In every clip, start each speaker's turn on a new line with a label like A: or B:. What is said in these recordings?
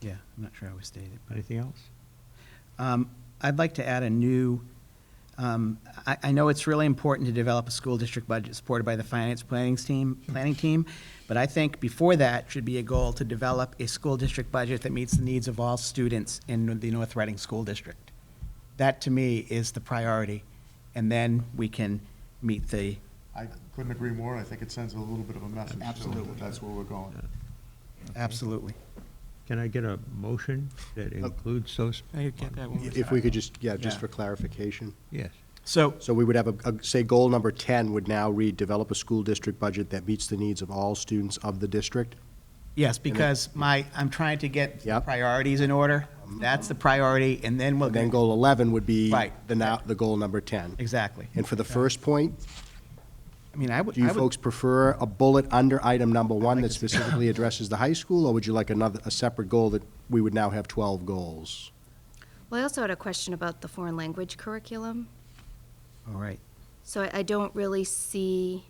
A: Yeah, I'm not sure how we stated it, but.
B: Anything else?
A: Um, I'd like to add a new, um, I I know it's really important to develop a school district budget supported by the finance planning team, planning team, but I think before that should be a goal to develop a school district budget that meets the needs of all students in the North Reading School District. That, to me, is the priority, and then we can meet the,
C: I couldn't agree more, and I think it sends a little bit of a message. too,
A: Absolutely.
C: that That's where we're going.
A: absolutely.
B: Can I get a motion that includes those?
D: I could get that one.
E: If we could just, yeah, just
A: Yeah.
E: for clarification.
B: Yes.
A: So,
E: So we would have, a a- say, goal number 10 would now read, develop a school district budget that meets the needs of all students of the district.
A: yes, because my, I'm trying to get
E: Yep. Um,
A: priorities in order. That's the priority, and then we'll.
E: And then goal 11 would be
A: Right.
E: the now, the goal number 10.
A: Exactly.
E: And for the first point,
A: I mean, I would.
E: do you
A: I would-
E: folks prefer a bullet under item number one
A: like
E: that
A: to see-
E: specifically addresses the high school? Or would you like another, a separate goal that we would now have 12 goals?
F: Well, I also had a question about the foreign language curriculum.
A: All right.
F: So I, I don't really see,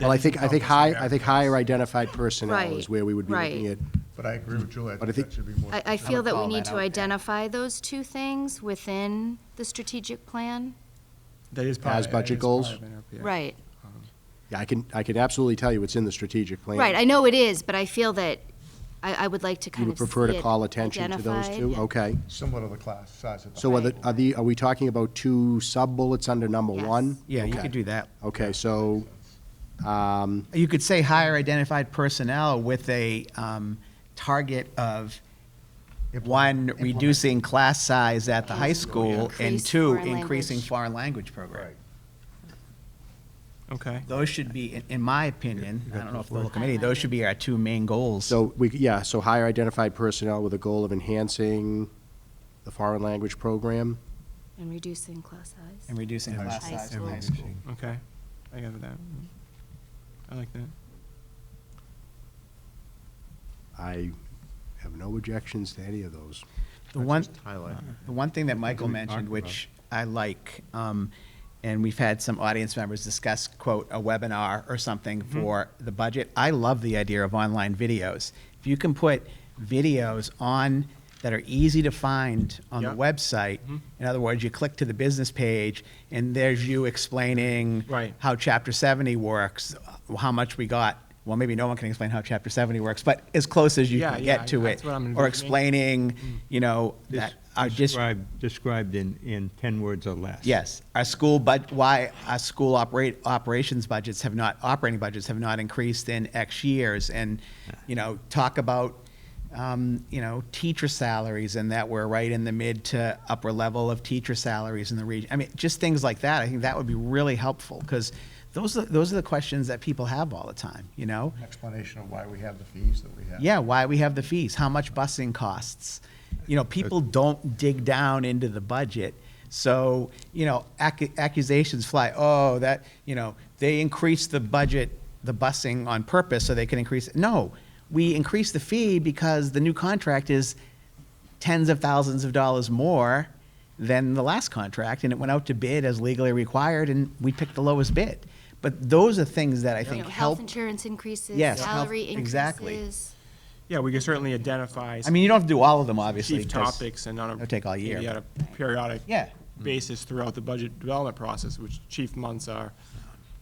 E: Well, I think, I think high, I think higher identified personnel is
F: Right,
E: where we would be looking
F: right.
E: at.
C: But I agree with Julie, I
E: But I
C: think that
E: think-
C: should be more.
F: I, I feel that we
E: call
F: need
E: that
F: to
E: out, yeah.
F: identify those two things within the strategic plan.
D: That is part
E: As
D: of-
E: budget
D: that is part
E: goals?
D: of NRPA.
F: Right,
E: Yeah, I can, I can absolutely tell you it's in the strategic plan.
F: right, I know it is, but I feel that I, I would like to
E: You
F: kind
E: would
F: of see
E: prefer to
F: it
E: call attention to those
F: identified.
E: two? Okay.
C: Similar to the class size of the.
E: So are the,
C: high
E: are the, are we talking about two sub-bullets under number
F: Yes.
E: one?
A: Yeah, you
E: Okay.
A: could do that.
E: Okay, so, um,
A: You could say higher identified personnel with a um, target of one, reducing class size at the high school, and
F: Increase
A: two,
F: foreign
A: increasing
F: language.
A: foreign language program.
C: Right.
D: Okay.
A: Those should be, in- in my opinion, I don't know if the whole committee, those should be our two main goals.
E: so we, yeah, so higher identified personnel with a goal of enhancing the foreign language program? Oh.
F: And reducing class size.
A: And reducing
C: High
A: class
F: school.
A: size in
F: High
A: high
F: school.
A: school.
D: Okay, I got that. I like that.
E: I have no objections to any of those.
A: The one, uh,
B: highlight.
A: the one thing that Michael
B: we talked
A: mentioned,
B: about.
A: which I like, um, and we've had some audience members discuss, quote, a webinar or something
D: Mm-hmm.
A: for the budget. I love the idea of online videos. If you can put videos on that are easy to find on the
D: Yeah. Mm-hmm.
A: website, in other words, you click to the business page and there's you explaining
D: Right.
A: how Chapter 70 works, uh, how much we got. Well, maybe no one can explain how Chapter 70 works, but as close as you
D: Yeah,
A: can
D: yeah,
A: get to
D: that's
A: it.
D: what I'm
A: Or
D: envisioning.
A: explaining, you know, that our dis-
B: Described, described in, in 10 words or less.
A: Yes, our school bud, why our school operate, operations budgets have not, operating budgets have not increased in X years, and, you know, talk about, um, you know, teacher salaries, and that we're right in the mid to upper level of teacher salaries in the region. I mean, just things like that, I think that would be really helpful, because those are, those are the questions that people have all the time, you know?
C: An Explanation of why we have the fees that we have.
A: Yeah, why we have the fees, how much busing costs. You know, people don't dig down into the budget. So, you know, accu- accusations fly, oh, that, you know, they increased the budget, the busing on purpose so they can increase it. No, we increased the fee because the new contract is tens of thousands of dollars more than the last contract, and it went out to bid as legally required, and we picked the lowest bid. But those are things that I
F: You
A: think
F: know,
A: help.
F: health insurance increases,
A: Yes, health-
F: salary
A: exactly.
F: increases.
D: Yeah, we can certainly identify.
A: I mean, you don't have to do all of them, obviously.
D: Chief
A: because-
D: topics and on a.
A: It'll take all year,
D: Maybe
A: but-
D: on a periodic.
A: Yeah.
D: Basis throughout the budget development process, which chief months are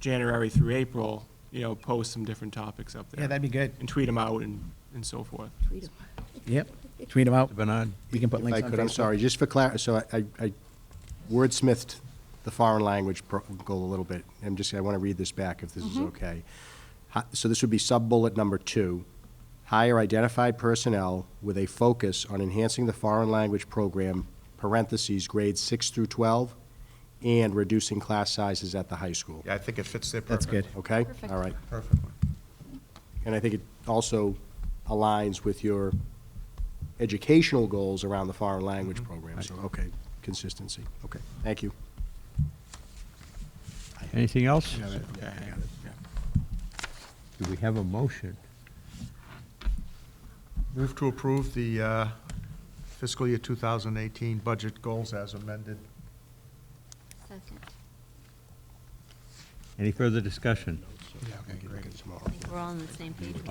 D: January through April, you know, post some different topics up there.
A: Yeah, that'd be good.
D: And tweet them out and, and so forth.
F: Read 'em.
A: Yep, tweet them out.
B: Bernard?
A: We can put links
E: If
A: on
E: I could, I'm
A: Facebook.
E: sorry, just for clar, so I, I wordsmithed the foreign language pro- goal a little bit. I'm just, I want to read this back if this is
A: Mm-hmm.
E: okay. Hi- So this would be sub-bullet number two, hire identified personnel with a focus on enhancing the foreign language program, parentheses, grades six through 12, and reducing class sizes at the high school.
C: Yeah, I think it fits there
A: That's
C: perfectly.
A: good.
E: Okay?
F: Perfect.
E: All right.
C: Perfectly.
E: And I think it also aligns with your educational goals around the foreign language program, so, okay, consistency, okay, thank you.
B: Anything else?
D: Okay.
B: Do we have a motion?
C: Move to approve the uh, fiscal year 2018 budget goals as amended.
F: Second.
B: Any further discussion?
E: Yeah, okay, great. Tomorrow.
G: We're all on the same page.